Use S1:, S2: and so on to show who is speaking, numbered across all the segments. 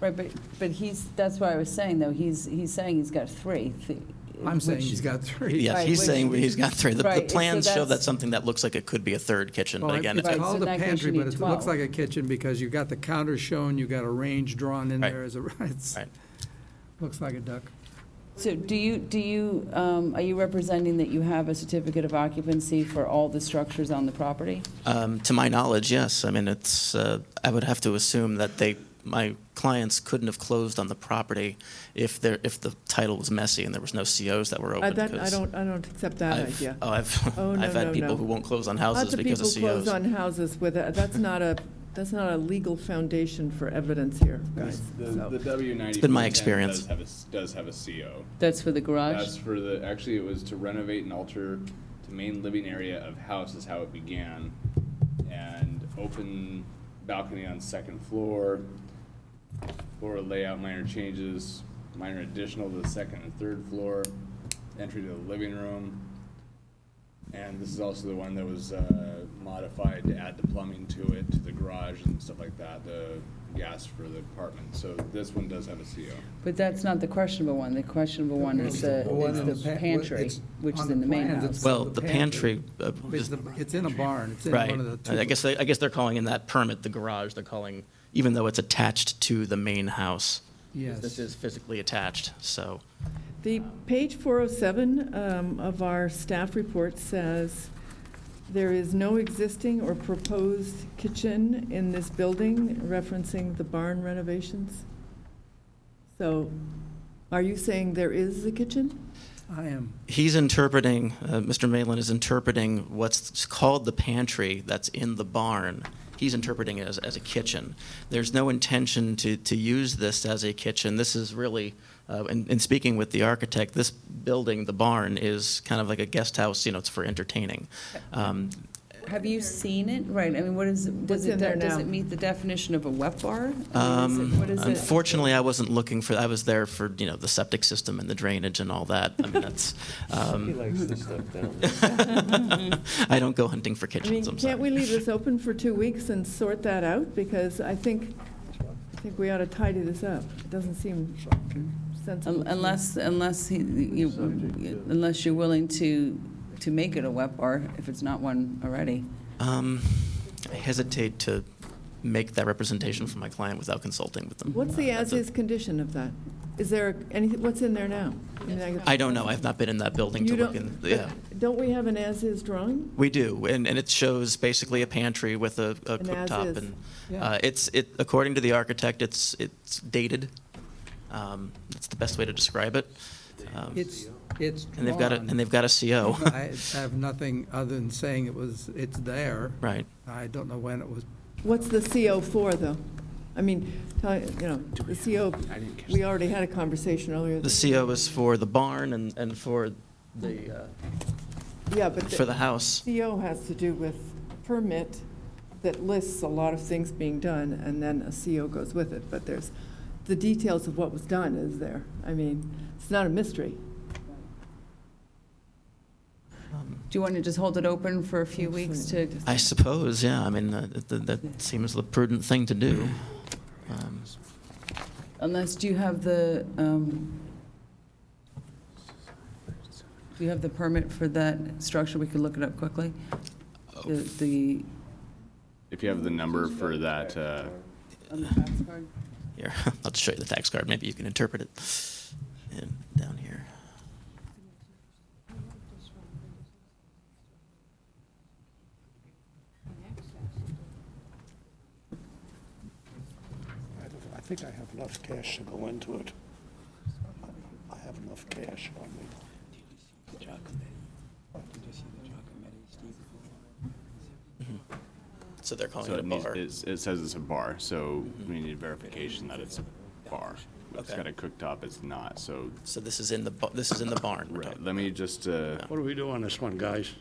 S1: Right, but, but he's, that's why I was saying, though, he's, he's saying he's got three. th-
S2: I'm saying
S1: which-
S2: he's got three.
S1: Right,
S3: Yes, he's
S1: which-
S3: saying he's got three. The- The
S1: Right, so
S3: plans show
S1: that's-
S3: that's something that looks like it could be a third kitchen,
S2: Well,
S3: but
S2: it-
S3: again,
S2: it's
S3: it's-
S1: Right, so
S2: called
S1: in
S2: a
S1: that case
S2: pantry,
S1: you
S2: but
S1: need
S2: it looks
S1: 12.
S2: like a kitchen because you've got the counter shown, you've got a range drawn in
S3: Right.
S2: there as a, it's,
S3: Right.
S2: looks like a duck.
S1: So do you, do you, um, are you representing that you have a certificate of occupancy for all the structures on the property?
S3: um, to my knowledge, yes. I mean, it's, uh, I would have to assume that they, my clients couldn't have closed on the property if there, if the title was messy and there was no COs that were
S4: I
S3: open.
S4: Uh, that- I
S3: 'cause
S4: don't, I don't accept that
S3: I've-
S4: idea.
S3: Oh, I've,
S4: Oh, no,
S3: I've
S4: no,
S3: had
S4: no.
S3: people who won't close on houses
S4: Lots of
S3: because
S4: people
S3: of E
S4: close
S3: COs.
S4: on houses with, a- that's not a, that's not a legal foundation for evidence here, guys.
S5: The, the
S4: So,
S5: W ninety.
S3: been my experience.
S5: Does have a, s- does have a CO.
S1: That's for the
S5: That's
S1: garage?
S5: for the, actually, it was to renovate and alter the main living area of house is how it began. And open balcony on second floor, floor layout, minor changes, minor additional to the second and third floor, entry to the living room. And this is also the one that was uh, modified to add the plumbing to it, to the garage and stuff like that, the gas for the apartment. So this one does have a CO.
S1: But that's not the questionable one. The questionable one is the,
S2: The one in
S1: is
S2: the
S1: the
S2: pa-
S1: pantry,
S2: it's
S1: which
S2: on
S1: is
S2: the
S1: in the main
S2: plans,
S1: house.
S2: it's-
S3: Well,
S2: the
S3: the pantry, uh,
S2: It's,
S3: is-
S2: the- it's in a barn, it's in
S3: right.
S2: one of the two.
S3: I guess, they- I guess they're calling in that permit, the garage, they're calling, even though it's attached to the main house. This
S2: Yes,
S3: is physically attached, so.
S4: The page 407 um, of our staff report says, "There is no existing or proposed kitchen in this building," referencing the barn renovations. So are you saying there is a kitchen?
S2: I am.
S3: He's interpreting, uh, Mr. Malin is interpreting what's called the pantry that's in the barn. He's interpreting it as, as a kitchen. There's no intention to, to use this as a kitchen. This is really, uh, in, in speaking with the architect, this building, the barn, is kind of like a guest house, you know, it's for entertaining. Um,
S1: Have you seen it? Right, I mean, what is,
S4: What's
S1: does it,
S4: in there
S1: does
S4: now?
S1: it meet the definition of a wet bar? I mean, is it-
S3: Um,
S1: what is it?
S3: unfortunately, I wasn't looking for, I was there for, you know, the septic system and the drainage and all that. I mean, that's, um,
S6: likes the stuff down
S3: I don't go hunting for
S4: I mean,
S3: kitchens, I'm sorry.
S4: can't we leave this open for two weeks and sort that out? Because I think, I think we ought to tidy this up. It doesn't seem sensible.
S1: Un-
S4: to me.
S1: Um, Unless, unless he, you, unless you're willing to, to make it a wet bar, if it's not one already.
S3: Um, I hesitate to make that representation for my client without consulting with them.
S4: What's the
S3: Uh, that's a-
S4: as-is condition of that? Is there any, what's in there now? I mean, I guess-
S3: I don't know. I've not been in that building to
S4: You
S3: look
S4: don't-
S3: in.
S4: but
S3: Yeah.
S4: Don't we have an as-is drawing?
S3: We do, and, and it shows basically a pantry with a, a
S4: An
S3: cooktop,
S4: as-is.
S3: and
S2: Yeah.
S3: uh, it's it according to the architect, it's it's dated. Um, that's the best way to describe it. Um,
S2: It's, it's
S3: and they've got a
S2: drawn.
S3: and they've got a CO,
S2: I have nothing other than saying it was, it's there.
S3: right?
S2: I don't know when it was,
S4: What's the CO for, though? I mean, tell- you know, the CO, we already had a conversation earlier.
S3: The CO is for the barn and and for the uh,
S4: Yeah, but
S3: for the house.
S4: CO has to do with permit that lists a lot of things being done, and then a CO goes with it, but there's, the details of what was done is there. I mean, it's not a mystery.
S3: Um,
S1: Do you want to just hold it open for a few weeks to,
S3: I suppose, yeah. I mean, uh, th- th- that seems the prudent thing to do. Um,
S1: unless, do you have the, um, do you have the permit for that structure? We could look it up quickly. The, the,
S5: If you have the number for that, uh,
S1: on the tax card?
S3: Here, I'll just show you the tax card. Maybe you can interpret it. And down here.
S6: I don't- I think I have enough cash to go into it. I have enough cash on me.
S3: So they're calling
S5: so
S3: it a
S5: it needs,
S3: Oh, bar. Mm-hmm.
S5: it's- it says it's a bar, so we need verification that it's a bar. It's
S3: Okay.
S5: got a cooktop, it's not, so,
S3: So this is in the bu- this is in the barn. we're talking.
S5: let me just, uh,
S6: What do we do on this one, guys?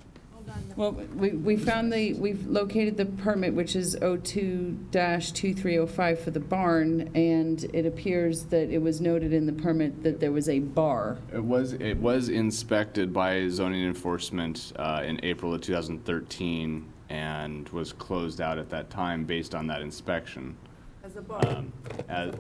S1: Well, we, we found the, we've located the permit, which is 02-2305 for the barn, and it appears that it was noted in the permit that there was a bar.
S5: It was, it was inspected by zoning enforcement uh, in April of 2013 and was closed out at that time based on that inspection.
S4: As a bar.
S5: um, as,